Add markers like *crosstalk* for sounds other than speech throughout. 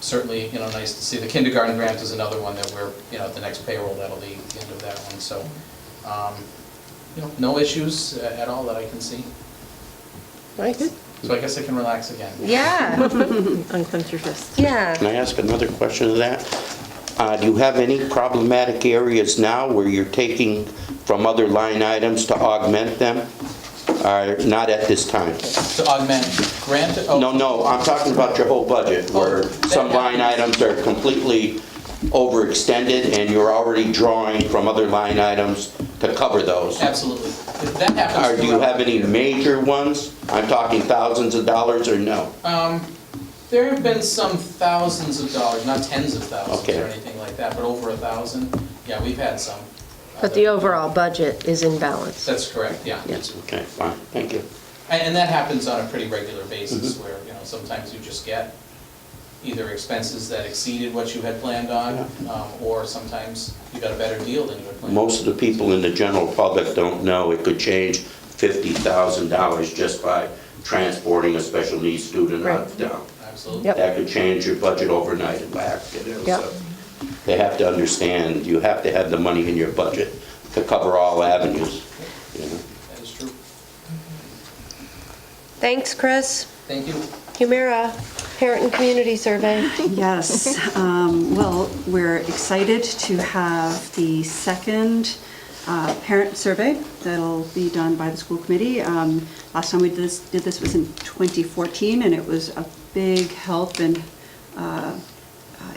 certainly, you know, nice to see. The kindergarten grant is another one that we're, you know, at the next payroll, that'll be the end of that one, so, um, you know, no issues a- at all that I can see. Nice. So I guess I can relax again. Yeah, Unclench your fist. yeah. Can I ask another question of that? Uh, Do you have any problematic areas now where you're taking from other line items to augment them? Or not at this time? To augment grant, oh. No, no, I'm talking about your whole budget, where some line items are completely overextended and you're already drawing from other line items to cover those. Absolutely. If That happens. Or do you have throughout the any year. major ones? I'm talking thousands of dollars or no? There have been some thousands of dollars, not tens of thousands Okay. or anything like that, but over a thousand. Yeah, we've had some. Uh, But the overall budget is in balance. That's correct, yeah. Yes, okay, fine, thank you. And, and that happens on a pretty regular basis where, you know, sometimes you just get either expenses that exceeded what you had planned on, um, or sometimes you got a better deal than you had planned. Most of the people in the general public don't know it could change $50,000 just by transporting a special needs student out of Right. town. Absolutely. Yep. That could change your budget overnight and back, you know, Yep. so. They have to understand, you have to have the money in your budget to cover all avenues, you know. That is true. Thanks, Chris. Thank you. Humira, Parent and Community Survey. Yes, um, well, we're excited to have the second uh, parent survey that'll be done by the school committee. Um, Last time we did this, did this was in 2014, and it was a big help in uh, uh,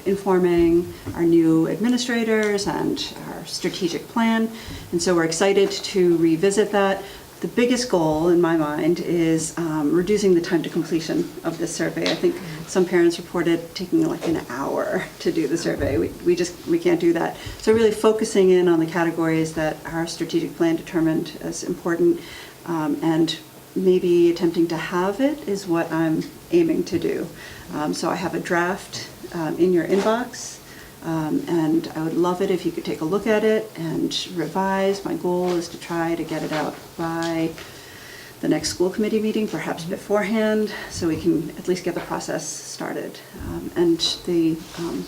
informing our new administrators and our strategic plan. And so we're excited to revisit that. The biggest goal, in my mind, is um, reducing the time to completion of this survey. I think some parents reported taking like an hour to do the survey. We we just, we can't do that. So really focusing in on the categories that our strategic plan determined as important um, and maybe attempting to have it is what I'm aiming to do. Um, So I have a draft um, in your inbox, um, and I would love it if you could take a look at it and revise. My goal is to try to get it out by the next school committee meeting, perhaps beforehand, so we can at least get the process started. Um, And the, um,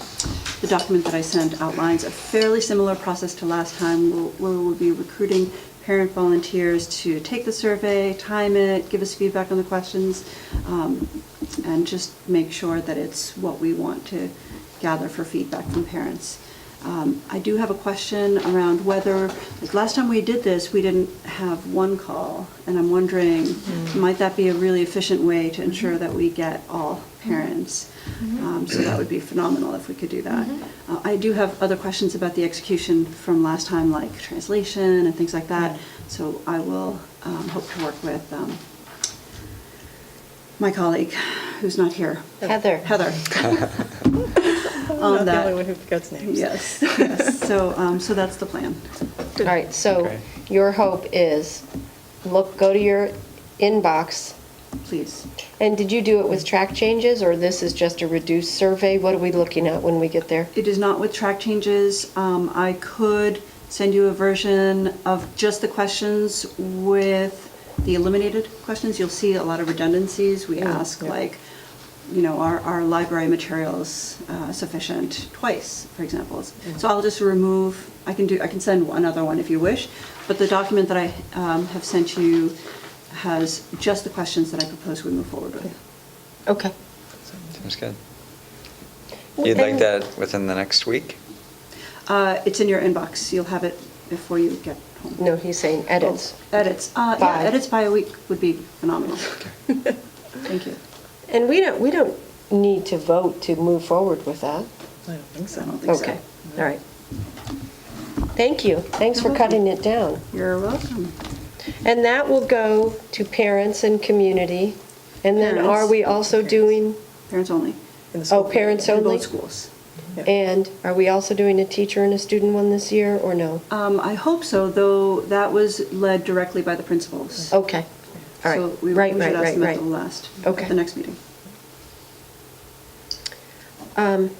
the document that I sent outlines a fairly similar process to last time, where where we'll be recruiting parent volunteers to take the survey, time it, give us feedback on the questions, um, and just make sure that it's what we want to gather for feedback from parents. Um, I do have a question around whether, like, last time we did this, we didn't have one call, and I'm wondering, Mm. might that be a really efficient way to ensure that we get all Mm-hmm. parents? Um, So that would be phenomenal if we could do that. Mm-hmm. Uh, I do have other questions about the execution from last time, like translation and things like Mm. that, so I will um, hope to work with um, my colleague, who's not here. *laughs* Heather. Heather. *laughs* Not On Oh, the only Um, that. one who forgets names. *laughs* Yes, yes. So, um, so that's the plan. All right, so Okay. your hope is, look, go to your inbox. Please. And did you do it with track changes, or this is just a reduced survey? What are we looking at when we get there? It is not with track changes. Um, I could send you a version of just the questions with the eliminated questions. You'll see a lot of redundancies. We ask yeah. like, you know, are our library materials uh, sufficient twice, for example. So I'll just remove, I can do, I can send another one if you wish, but the document that I um, have sent you has just the questions that I propose we move forward with. Okay. Sounds good. You'd like that within the next week? Uh, It's in your inbox. You'll have it before you get home. No, he's saying edits. Oh, Edits, uh, yeah, By. edits by a week would be phenomenal. *laughs* Thank you. And we don't, we don't need to vote to move forward with that. I don't think I so. don't think so. Okay, all right. Thank you. Thanks for cutting it down. You're welcome. And that will go to parents and community. And then are we also doing, Parents only. In the oh, school. parents In only? both schools. And are we also doing a teacher and a student one this year, or no? Um, I hope so, though that was led directly by the principals. Okay, Oh, all So right, we- right, We right, should ask right, them at the right. last, Okay. at the next meeting. Um,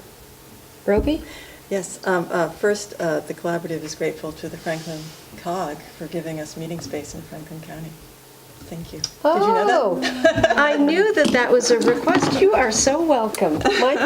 Roby? Yes, um, uh, first, uh, the collaborative is grateful to the Franklin COG for giving us meeting space in Franklin County. Thank you. Did you know that? *laughs* Oh! *laughs* Oh, I knew that that was a request. You are so welcome. My